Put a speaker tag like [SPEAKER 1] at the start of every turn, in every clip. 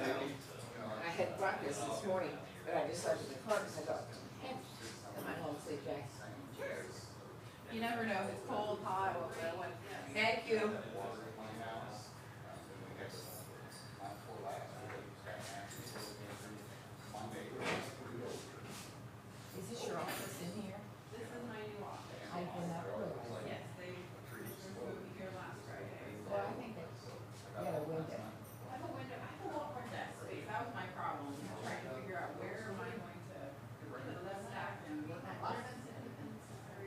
[SPEAKER 1] uh,
[SPEAKER 2] had breakfast this morning, but I just looked at the clock and I thought, "Heck," and my whole sleep back. You never know, if it's cold, hot, or whatever. Thank you.
[SPEAKER 1] Um, uh,
[SPEAKER 3] Is this your office in here?
[SPEAKER 4] This is my new office.
[SPEAKER 3] I did not realize.
[SPEAKER 4] Yes, they moved here last Friday.
[SPEAKER 2] Well, I think that,
[SPEAKER 3] You had a window.
[SPEAKER 4] I have a window, I have a lot more desk space, that was my problem, trying to figure out where am I going to put that stack and what my office is.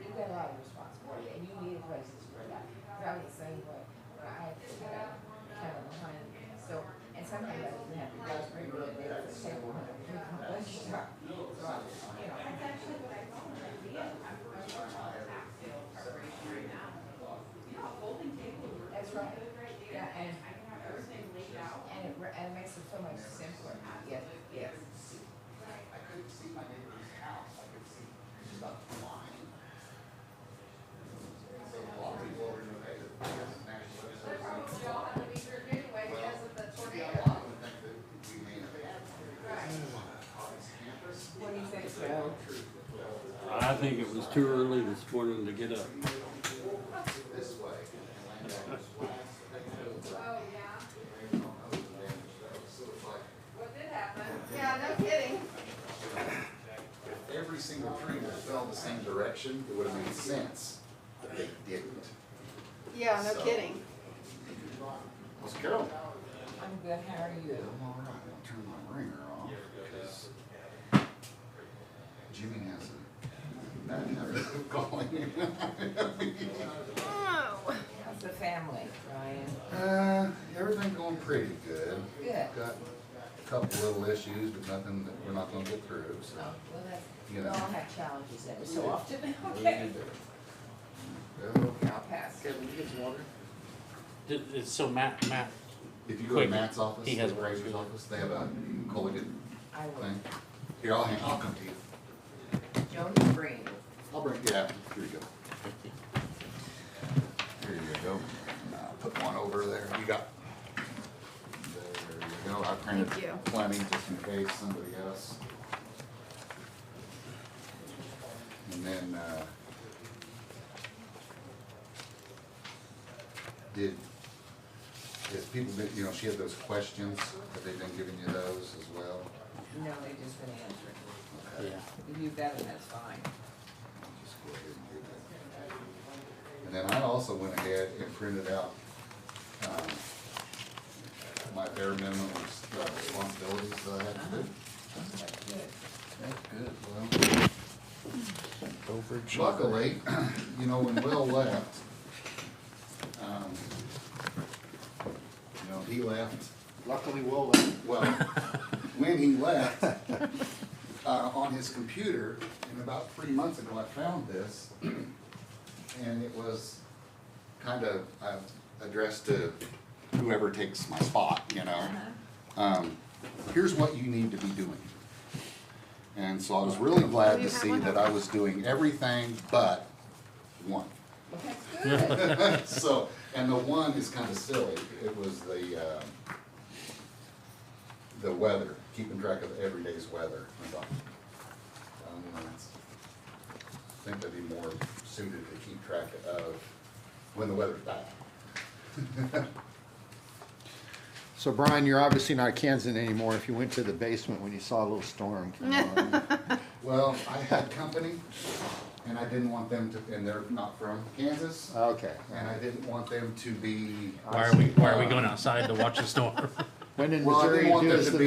[SPEAKER 3] You got a lot of responsibility and you need places for that. Cause I was the same way. When I had to get out, kind of behind me. So, and sometimes I didn't have to go through the day to say, well, I'm gonna come lunch time. So I, you know,
[SPEAKER 4] That's actually what I thought it would be, I'm, I'm working on the tax sale preparation right now. You know, a folding table would work
[SPEAKER 3] That's
[SPEAKER 4] really
[SPEAKER 3] right.
[SPEAKER 4] good right there,
[SPEAKER 3] Yeah,
[SPEAKER 4] and
[SPEAKER 3] and-
[SPEAKER 4] I can have everything laid out.
[SPEAKER 3] and it, re- and it makes it so much simpler. Yes, yes.
[SPEAKER 1] I couldn't see my neighbor's house, I could see just about the line. So a lot of people were in the way that there's an actual-
[SPEAKER 2] they probably all have to be here anyway because of the
[SPEAKER 1] Yeah,
[SPEAKER 2] tornado.
[SPEAKER 1] a lot of them think that we may not have on this campus.
[SPEAKER 3] What do you think, Joe?
[SPEAKER 5] I think it was too early this morning to get up.
[SPEAKER 1] This way, and land on this flat, so they know that
[SPEAKER 2] Oh, yeah.
[SPEAKER 1] they don't know the damage that was. So it's like,
[SPEAKER 2] What did happen? Yeah, no kidding.
[SPEAKER 1] if every single tree would have fell the same direction, it would have made sense, but they didn't.
[SPEAKER 2] Yeah,
[SPEAKER 1] no So- kidding. Let's go.
[SPEAKER 3] I'm good. How are you?
[SPEAKER 1] I'm all right. I'll turn my ringer off because Jimmy has a bad habit of calling.
[SPEAKER 3] How's the family, Ryan?
[SPEAKER 1] Uh, everything going pretty good.
[SPEAKER 3] Good.
[SPEAKER 1] Got a couple little issues, but nothing that we're not gonna get through,
[SPEAKER 3] Oh,
[SPEAKER 1] so.
[SPEAKER 3] well, that's, we
[SPEAKER 1] You know.
[SPEAKER 3] all have challenges every so often.
[SPEAKER 1] what do you
[SPEAKER 3] Okay.
[SPEAKER 1] do? Well,
[SPEAKER 3] I'll pass.
[SPEAKER 1] Kevin, you get some water?
[SPEAKER 6] Th- th- So Matt, Matt,
[SPEAKER 1] If you go to
[SPEAKER 6] Quick.
[SPEAKER 1] Matt's office,
[SPEAKER 6] He has
[SPEAKER 1] the
[SPEAKER 6] one.
[SPEAKER 1] Razor's office, they have a collegiate
[SPEAKER 3] I will.
[SPEAKER 1] thing. Here, I'll, hand- I'll come to you.
[SPEAKER 3] Joni Green.
[SPEAKER 1] I'll bring, yeah, here you go. Here you go. Uh, Put one over there. You got. There you go. I printed
[SPEAKER 2] Thank you.
[SPEAKER 1] plenty just in case somebody else. And then, uh, did, has people been, you know, she had those questions. Have they been giving you those as well?
[SPEAKER 3] No, they just been answering.
[SPEAKER 1] Okay.
[SPEAKER 6] yeah.
[SPEAKER 3] If you got it, that's fine.
[SPEAKER 1] Just go ahead and do that. And then I also went ahead and printed out, um, my bare minimum uh, responsibilities that I had to do.
[SPEAKER 3] That's good.
[SPEAKER 1] That's good, well. Luckily, you know, when Will left, um, you know, he left,
[SPEAKER 7] Luckily, Will left.
[SPEAKER 1] well, when he left, uh, on his computer, and about three months ago, I found this, and it was kind of, uh, addressed to whoever takes my spot, you know? Um, here's what you need to be doing. And so I was really glad to see that I was doing everything but one.
[SPEAKER 3] Well, that's good.
[SPEAKER 1] So, and the one is kind of silly, it was the, uh, the weather, keeping track of every day's weather. I thought, um, that's- I think that'd be more suited to keep track of when the weather's bad.
[SPEAKER 7] So Brian, you're obviously not Kansan anymore if you went to the basement when you saw a little storm come on.
[SPEAKER 1] Well, I had company, and I didn't want them to, and they're not from Kansas,
[SPEAKER 7] Okay.
[SPEAKER 1] and I didn't want them to be.
[SPEAKER 6] Why are we, why are we going outside to watch the storm?
[SPEAKER 7] When in
[SPEAKER 1] Well, I didn't
[SPEAKER 7] Missouri,
[SPEAKER 1] want
[SPEAKER 7] do
[SPEAKER 1] there
[SPEAKER 7] as
[SPEAKER 1] to
[SPEAKER 7] the
[SPEAKER 1] be